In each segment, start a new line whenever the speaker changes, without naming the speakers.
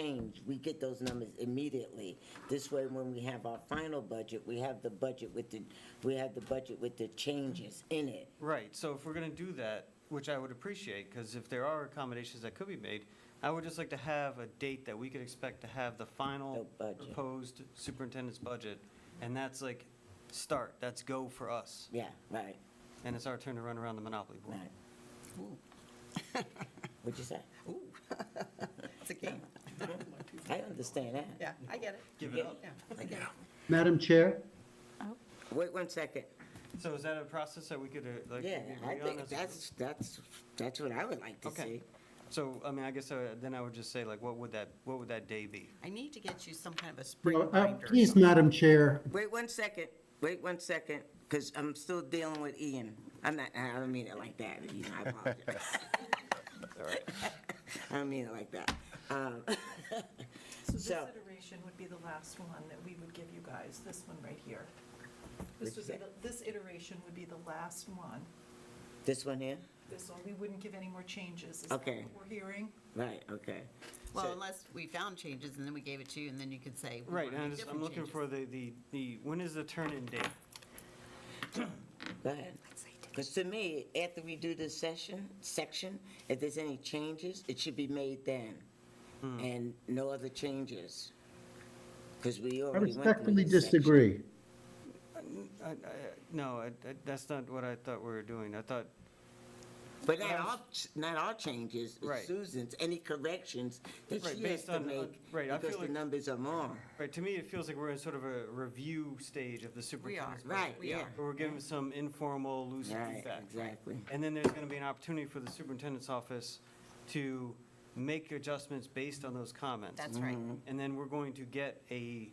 change, we get those numbers immediately. This way, when we have our final budget, we have the budget with the, we have the budget with the changes in it.
Right, so if we're going to do that, which I would appreciate, because if there are accommodations that could be made, I would just like to have a date that we could expect to have the
The
final
budget.
proposed superintendent's budget, and that's like, start, that's go for us,
Yeah, right,
and it's our turn to run around the Monopoly board.
right. What'd you say?
It's a game.
I understand that.
Yeah, I get it.
Give it up.
Yeah, I get it.
Madam Chair,
Wait one second.
So is that a process that we could, uh, like,
Yeah, I
agree on?
think
as a group?
that's, that's, that's what I would like to see.
Okay, so, I mean, I guess uh, then I would just say, like, what would that, what would that day be?
I need to get you some kind of a spring
well, uh,
binder. or
please,
something.
Madam Chair,
Wait one second, wait one second, because I'm still dealing with Ian. I'm not, I don't mean it like that, you know, I apologize. I don't mean it like that. Um,
So this
So-
iteration would be the last one that we would give you guys, this one right here. This would be, the- this iteration would be the last one.
This one here?
This one, we wouldn't give any more changes. Is that
Okay.
what We're hearing,
Right, okay.
Well,
So-
unless we found changes and then we gave it to you and then you could say. we
Right,
wanna
and I'm
make
just, I'm
different
looking
changes.
for the, the, the, when is the turn-in date?
Go ahead. Because to me, after we do this session, section, if there's any changes, it should be made then.
Hmm.
And no other changes. Because we
I
already went through
respectfully
this section.
disagree.
Uh,
I- I- No, I- I- that's not what I thought we were doing. I thought,
But not all, not all changes, it's
Right.
Susan's, any corrections that
Right,
she has
based
to
on-
make,
right, I feel
because the
like-
numbers are more.
right, to me, it feels like we're in sort of a review stage of the superintendent's.
Right,
budget,
we
where
are.
We're giving some informal loose
Right,
feedback.
exactly.
And then there's going to be an opportunity for the superintendent's office to make adjustments based on those comments.
That's right.
Mm-hmm.
And then we're going to get a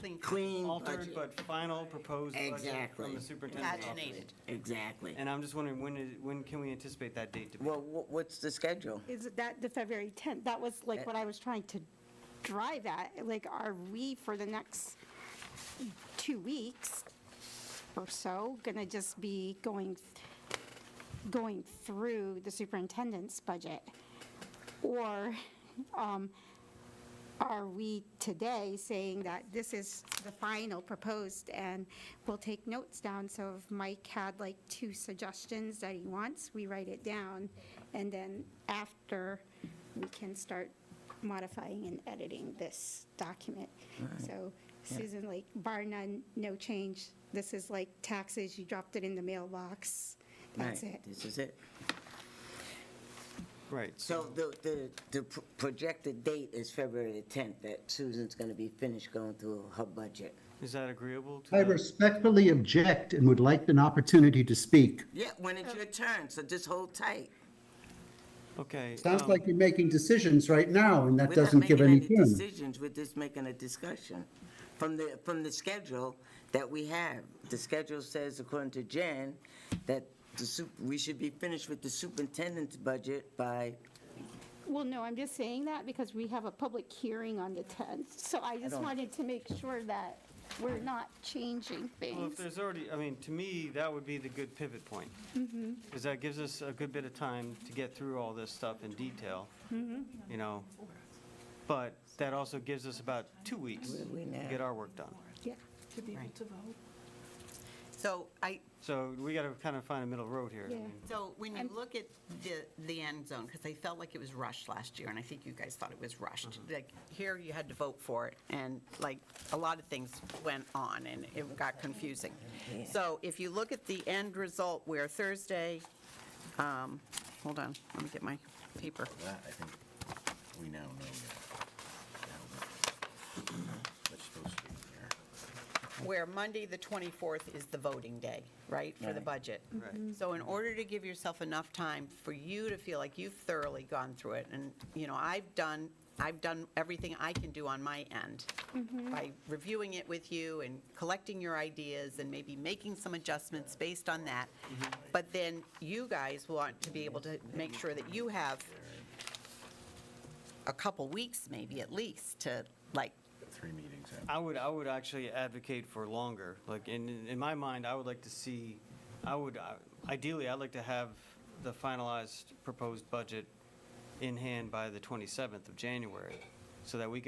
Clean.
Clean
altered
budget,
but final proposed budget
Exactly.
from the superintendent's office.
Paginated.
exactly.
And I'm just wondering, when is, when can we anticipate that date to be?
Well, wh- what's the schedule?
Is it that the February 10th? That was like what I was trying to drive at. Like, are we for the next two weeks or so going to just be going, going through the superintendent's budget? Or um, are we today saying that this is the final proposed and we'll take notes down? So if Mike had like two suggestions that he wants, we write it down. And then after, we can start modifying and editing this document. So Susan, like bar none, no change. This is like taxes, you dropped it in the mailbox. That's
Right,
it.
This is it.
Right,
So the, the, the pr- projected date is February the 10th, that Susan's going to be finished going through her budget.
is that agreeable to?
I
Um,
the-
respectfully object and would like an opportunity to speak.
Yeah, when it's your turn, so just hold tight.
Okay.
Sounds
um,
like you're making decisions right now, and that
We're not
doesn't give
making
any turn.
Decisions, we're just making a discussion from the, from the schedule that we have. The schedule says, according to Jan, that the sup, we should be finished with the superintendent's budget by,
Well, no, I'm just saying that because we have a public hearing on the 10th. So I just
don't-
wanted to make sure that we're not changing
Well, if
things.
there's already, I mean, to me, that would be the good pivot point. Because that gives us a good bit of time to get through all this stuff in detail, you know? But that also gives us about two weeks
Where
to
are we now?
get our work done.
Yeah.
to be able
Right.
to vote.
So I,
So we got to kind of find a middle road here. I
Yeah.
mean,
so when you
I'm-
look at the, the end zone, because I felt like it was rushed last year and I think you guys thought it was rushed. Like here you had to vote for it and like a lot of things went on and it got confusing. So if you look at the end result where Thursday, um, hold on, let me get my paper.
That, I think, we now know that. That's supposed to be here.
where Monday, the 24th, is the voting day, right, for the
Right.
budget?
Right.
So in order to give yourself enough time for you to feel like you've thoroughly gone through it, and, you know, I've done, I've done everything I can do on my end
Mm-hmm.
by reviewing it with you and collecting your ideas and maybe making some adjustments based on that. But then you guys want to be able to make sure that you have a couple weeks, maybe at least, to like
Three meetings in.
I would, I would actually advocate for longer. Like, in, in my mind, I would like to see, I would, uh, ideally, I'd like to have the finalized proposed budget in hand by the 27th of January. so that we can